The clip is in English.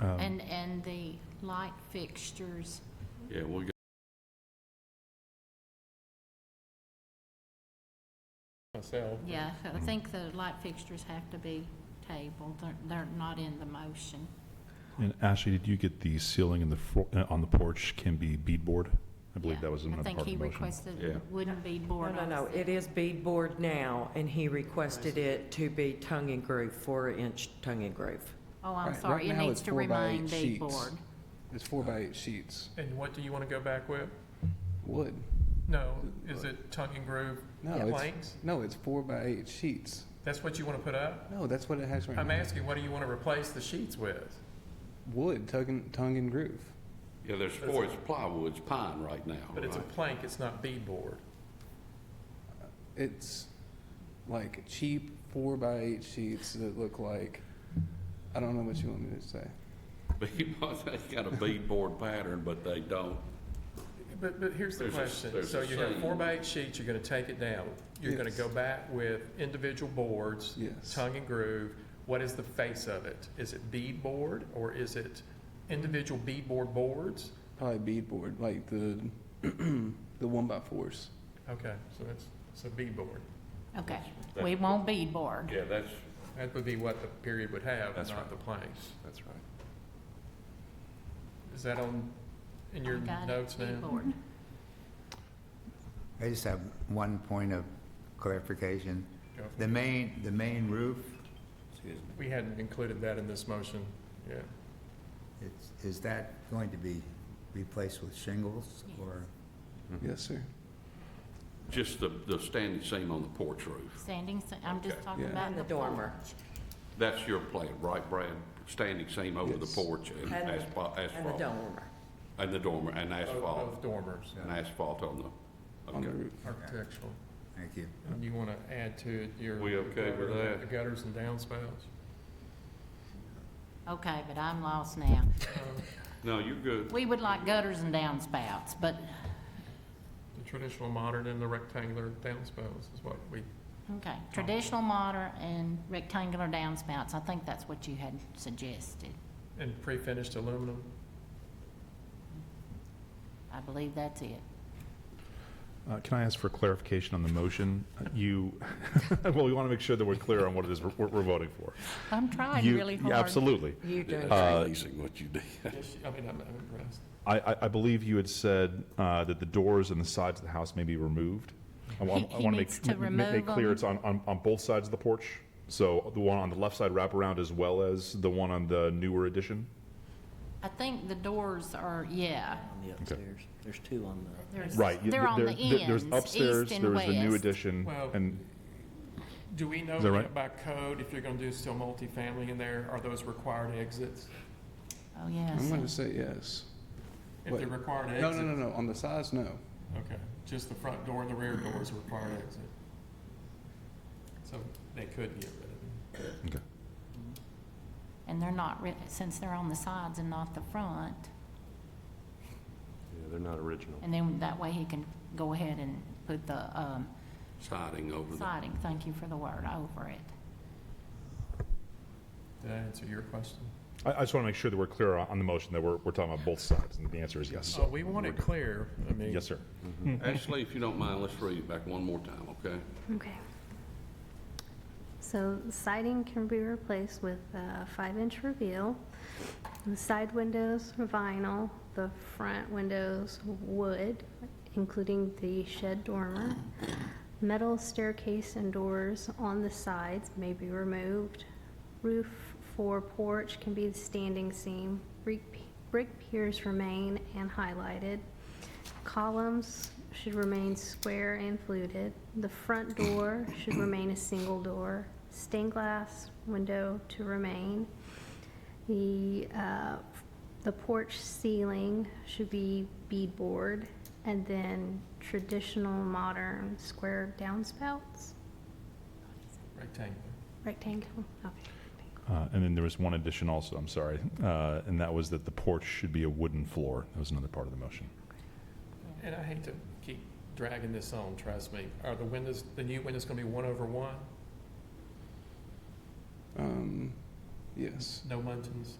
Um, And, and the light fixtures, Yeah, we'll get myself. yeah, I think the light fixtures have to be tabled, they're, they're not in the motion. And Ashley, did you get the ceiling in the, for- uh, on the porch can be beadboard? I believe Yeah. that was another part of the I think he motion. requested Yeah. it wouldn't be No, board no, no, opposite. it is beadboard now, and he requested it to be tongue and groove, four-inch tongue and groove. Oh, Right, I'm right sorry, it now needs it's to four by remain eight be sheets. board. It's four by eight sheets. And what do you want to go back with? Wood. No, is it tongue and groove No, it's, planks? no, it's four by eight sheets. That's what you want to put up? No, that's what it has right I'm now. asking, what do you want to replace the sheets with? Wood, tongue and, tongue and groove. Yeah, there's four, it's plywood, it's pine right now, But it's a right? plank, it's not beadboard. It's like cheap four by eight sheets that look like, I don't know what you want me to say. Beadboard, they got a beadboard pattern, but they don't. But, but here's the There's a- question. there's So a you have seam. four by eight sheets, you're going to take it down. You're going to Yes. go back with individual boards, Yes. tongue and groove. What is the face of it? Is it beadboard or is it individual beadboard boards? Probably beadboard, like the, the one by fours. Okay, so that's, so beadboard. Okay, we won't be board. Yeah, that's, That would be what the period would have, That's not right. the planks. that's right. Is that on, in your Got it, notes be now? board. I just have one point of clarification. Go for The main, the main roof We hadn't included that in this motion, yeah. It's- Is that going to be replaced with shingles or? Yes, sir. Just the, the standing seam on the porch roof. Standing, se- I'm just Okay. talking Yeah. about And the the dormer. porch. That's your plan, right, Brad? Standing seam over the Yes. porch and And- asphalt, And the asphalt. dormer. And the dormer, and Both- asphalt, Both dormers, and asphalt on the, On the okay. roof. architectural. Thank you. And you want to add to it your. We okay with that? The gutters and downspouts? Okay, but I'm lost now. No, you're good. We would like gutters and downspouts, but, The traditional modern and the rectangular downspouts is what we, okay, traditional modern and rectangular downspouts, I think that's what you had suggested. and pre-finished aluminum. I believe that's it. Uh, Can I ask for clarification on the motion? Uh, You, well, we want to make sure that we're clear on what it is we're- we're we're voting for. I'm trying You- really yeah, hard. Absolutely. You don't, Uh, Amazing what you did. Yes, I mean, I'm I'm impressed. I- I I believe you had said uh, that the doors and the sides of the house may be removed. I wa- He- I he wanna needs make to ma- ma- Make remove clear them. it's on- on on both sides of the porch, so the one on the left side wraparound as well as the one on the newer addition? I think the doors are, yeah, on the upstairs. There's two on the. there's, Right. you- they're on the there- there- ends, There's upstairs, east there and was the new west. addition, Well- and Do we know Is that right? by code if you're going to do still multifamily in there, are those required exits? Oh, yes. I'm gonna say yes. If What? they're required No, exits? no, no, no, on the sides, no. Okay, just the front door and the rear door is a required exit. So they could get rid of it. And they're not, re- since they're on the sides and not the front. Yeah, they're not original. And then that way he can go ahead and put the um, Siding over the, siding, thank you for the word, over it. Did I answer your question? I I just want to make sure that we're clear on on the motion, that we're we're talking about both sides, and the answer is yes. Oh, Oh, we want it clear. I mean. Yes, sir. Ashley, if you don't mind, let's read it back one more time, okay? Okay. So siding can be replaced with a five-inch reveal. The side windows are vinyl, the front windows wood, including the shed dormer. Metal staircase and doors on the sides may be removed. Roof for porch can be the standing seam. Brick p- brick piers remain and highlighted. Columns should remain square and fluted. The front door should remain a single door. Stained glass window to remain. The, uh, the porch ceiling should be beadboard and then traditional modern square downspouts, Rectangular. rectangle. Okay. Uh, And then there was one addition also, I'm sorry, uh, and that was that the porch should be a wooden floor. That was another part of the motion. And I hate to keep dragging this on, trust me. Are the windows, the new windows gonna be one over one? Um, yes. No muntins?